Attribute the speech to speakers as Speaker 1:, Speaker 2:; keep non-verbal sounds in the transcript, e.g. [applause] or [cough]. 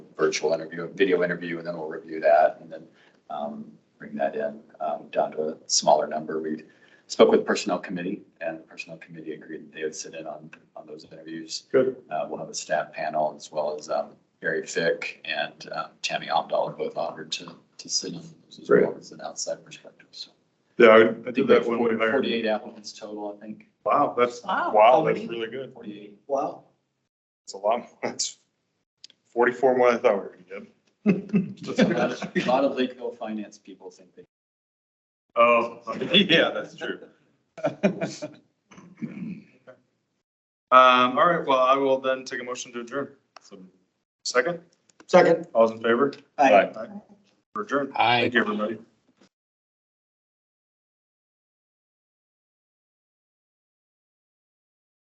Speaker 1: virtual interview, a video interview, and then we'll review that and then um, bring that in um, down to a smaller number. We spoke with Personnel Committee and the Personnel Committee agreed that they would sit in on, on those interviews.
Speaker 2: Good.
Speaker 1: Uh, We'll have a staff panel as well as um, Barry Fick and um, Tammy Omdahl are both offered to, to sit in. those as well as an outside perspective, so.
Speaker 2: Yeah, I- I
Speaker 1: I think
Speaker 2: did
Speaker 1: we
Speaker 2: that
Speaker 1: have
Speaker 2: when we
Speaker 1: 40
Speaker 2: hired.
Speaker 1: forty-eight applicants total, I think,
Speaker 2: Wow, that's,
Speaker 3: Wow.
Speaker 2: wow, that's
Speaker 3: Already?
Speaker 2: really good.
Speaker 1: forty-eight.
Speaker 3: Wow.
Speaker 2: It's a lot, that's forty-four more than I thought we were gonna get. [laughs]
Speaker 1: A lot of- a lot of Lakeville finance people think they.
Speaker 2: Oh, yeah, that's true. [laughs] Um, all right, well, I will then take a motion to adjourn. So, Second,
Speaker 3: Second.
Speaker 2: all's in favor?
Speaker 3: Aye.
Speaker 2: We're adjourned.
Speaker 4: Aye.
Speaker 2: Thank you, everybody.